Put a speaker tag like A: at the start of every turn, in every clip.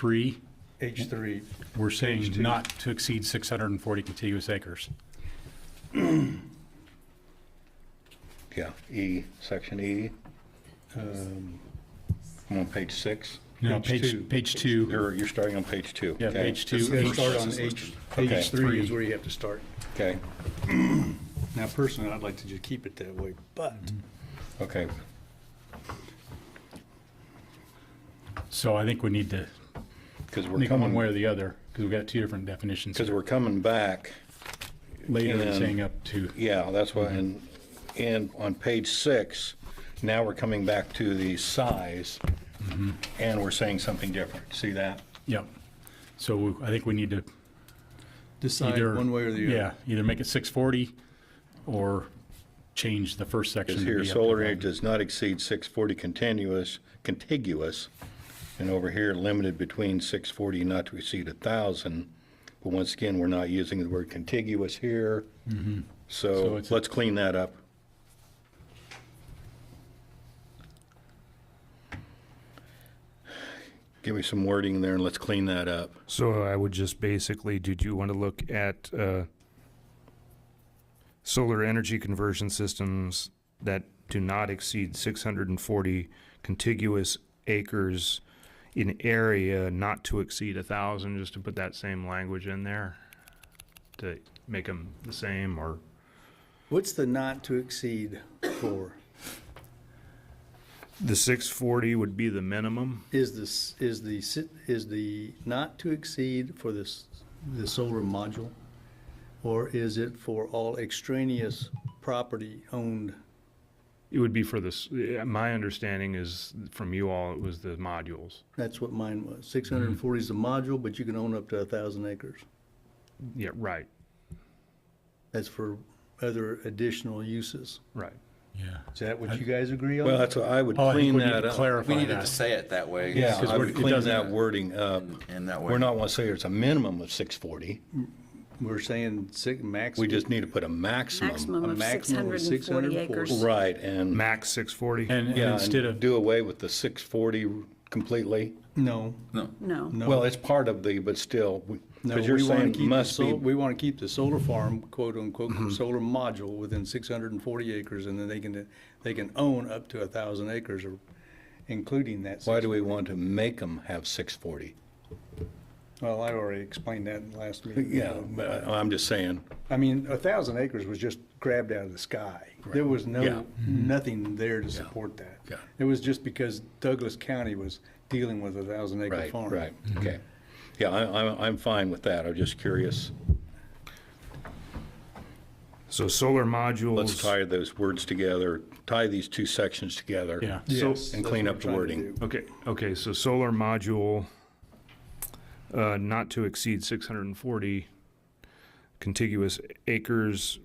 A: three,
B: H three.
A: we're saying
B: two.
A: not to exceed six hundred and forty contiguous acres.
C: Yeah, E, section E. um, I'm on page six,
A: No,
B: Page two.
A: page, page two,
C: or you're starting on page two.
A: yeah,
C: okay?
A: page
B: You
A: two.
B: gotta
A: H-
B: start on H,
C: Okay.
B: page three is where you have to start.
C: Okay,
B: Now personally, I'd like to just keep it that way, but
C: okay,
A: So I think we need to,
C: because
A: I
C: we're
A: think one way
C: coming,
A: or the other, because we've got two different definitions
C: because we're coming back,
A: later and
C: and-
A: saying up to,
C: yeah, that's why, and, and on page six, now we're coming back to the size,
A: Mm-hmm.
C: and we're saying something different, see that?
A: yep. So we- I think we need to
B: decide
A: either.
B: one way or the
A: Yeah,
B: other.
A: either make it six forty or change the first section.
C: Is
A: to
C: here,
A: be up to
C: solar
A: five.
C: energy does not exceed 640 continuous, contiguous, and over here, limited between 640 not to exceed 1,000. But once again, we're not using the word contiguous here,
A: Mm-hmm. So
C: so
A: it's-
C: let's clean that up. Give me some wording there and let's clean that up.
D: So I would just basically, did you want to look at uh, solar energy conversion systems that do not exceed 640 contiguous acres in area not to exceed a thousand, just to put that same language in there to make them the same or
B: What's the not to exceed for?
D: the 640 would be the minimum.
B: Is this, is the, sit- is the not to exceed for this, the solar module? Or is it for all extraneous property owned?
D: It would be for this, yeah, my understanding is from you all, it was the modules.
B: That's what mine was. Six hundred and forty is the module, but you can own up to a thousand acres.
D: Yeah, right,
B: That's for other additional uses.
D: right.
A: Yeah.
B: Is that what you guys agree on?
C: Well, that's what I would
A: Oh, I think
C: clean
A: we need
C: that
A: to
C: up.
E: We
A: clarify
E: needed to
A: that.
E: say it that way.
C: Yeah,
E: so
C: I
A: we're-
C: would
A: it
C: clean
A: doesn't-
C: that wording up.
E: In that way.
C: We're not want to say it's a minimum of 640.
B: We're saying six, max.
C: We just need to put a maximum.
F: Maximum
B: a
F: of
B: maximum of
F: 640
B: 640.
F: acres.
C: Right, and,
D: Max 640.
A: And and
C: yeah,
A: instead
C: and
A: of,
C: do away with the 640 completely.
B: No,
E: No.
F: No.
B: no.
C: Well, it's part of the, but still,
B: No,
C: because you're
B: we wanna
C: saying
B: keep the
C: must
B: sol-
C: be, Mm-hmm.
B: We want to keep the solar farm, quote unquote, solar module within six hundred and forty acres, and then they can, they can own up to a thousand acres or, including that.
C: why
B: six-
C: do we want to make them have 640?
B: Well, I already explained that in the last meeting.
C: Yeah, but I- I'm just saying,
B: I mean, a thousand acres was just grabbed out of the sky. There was
C: Yeah.
B: no, nothing there to support that.
C: Yeah.
B: It was just because Douglas County was dealing with a thousand acre
C: right,
B: farm. Mm-hmm.
C: right, okay. Yeah, I, I'm, I'm fine with that, I'm just curious.
D: So solar
C: Let's
D: modules,
C: tie those words together, tie these two sections together.
A: yeah,
B: Yes,
C: And
B: that's
C: clean
B: what
C: up
B: we're trying
C: the
B: to
C: wording.
B: do.
D: okay, okay, so solar module, uh, not to exceed six hundred and forty contiguous acres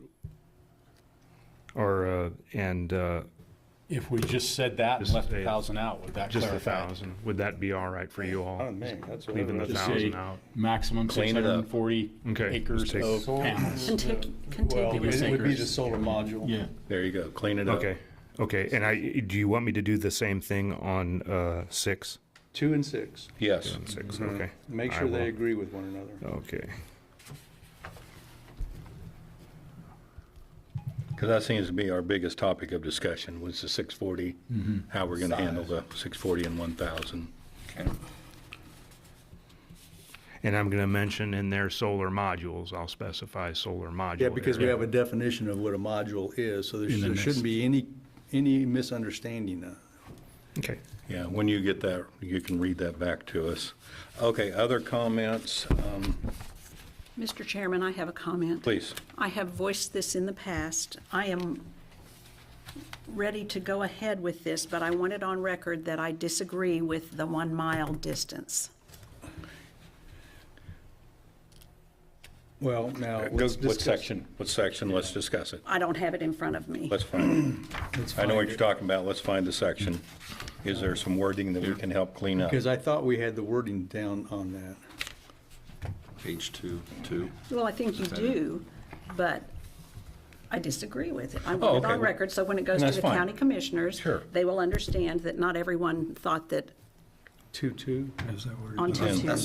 D: or, uh, and, uh,
A: if we just said that and
D: Just
A: left a
D: say-
A: thousand out, would that
D: just a
A: clarify? it?
D: thousand, would that be all right for you all?
B: Oh, man, that's what I
D: Leaving the
B: wrote.
A: Just say
D: thousand out.
A: maximum six
C: Clean it
A: hundred
C: up.
A: and forty
D: Okay,
A: acres
D: just take-
A: of panels.
F: Contig-
B: Well,
F: Contiguous.
B: it would be the
A: acres.
B: solar module.
A: Yeah,
C: There you go, clean it up.
D: Okay, okay, and I, do you want me to do the same thing on, uh, six?
B: Two and six.
C: Yes,
D: Six,
B: Mm-hmm.
D: okay.
B: Make
D: I
B: sure they
D: will.
B: agree with one another.
D: Okay,
C: because that seems to be our biggest topic of discussion, was the 640,
B: Mm-hmm.
C: how we're going to handle the 640 and 1,000.
D: and I'm gonna mention in there solar modules, I'll specify solar module.
B: Yeah, because we
D: area.
B: have a definition of what a module is, so there
A: In the
B: there
A: next-
B: shouldn't be any, any misunderstanding. uh,
D: Okay.
C: Yeah, when you get that, you can read that back to us. Okay, other comments? Um,
F: Mr. Chairman, I have a comment.
C: Please.
F: I have voiced this in the past. I am ready to go ahead with this, but I want it on record that I disagree with the one-mile distance.
B: Well, now,
C: Go-
B: let's
C: Uh, What
B: discuss.
C: section? What section? Let's discuss it.
F: I don't have it in front of me.
C: Let's find
B: let's
C: it. I know what
B: find
C: you're
B: it.
C: talking about. Let's find the section. Is there some wording that we can help clean up?
B: Because I thought we had the wording down on that.
E: Page two, two.
F: Well, I think you do, but I disagree with it. I
C: Oh,
F: want it
C: okay.
F: on record, so when it goes
C: And
F: to
C: that's
F: the
C: fine.
F: county commissioners,
C: Sure.
F: they will understand that not everyone thought that
G: two-two, is that where it is?
F: on two
B: Yeah.
F: two.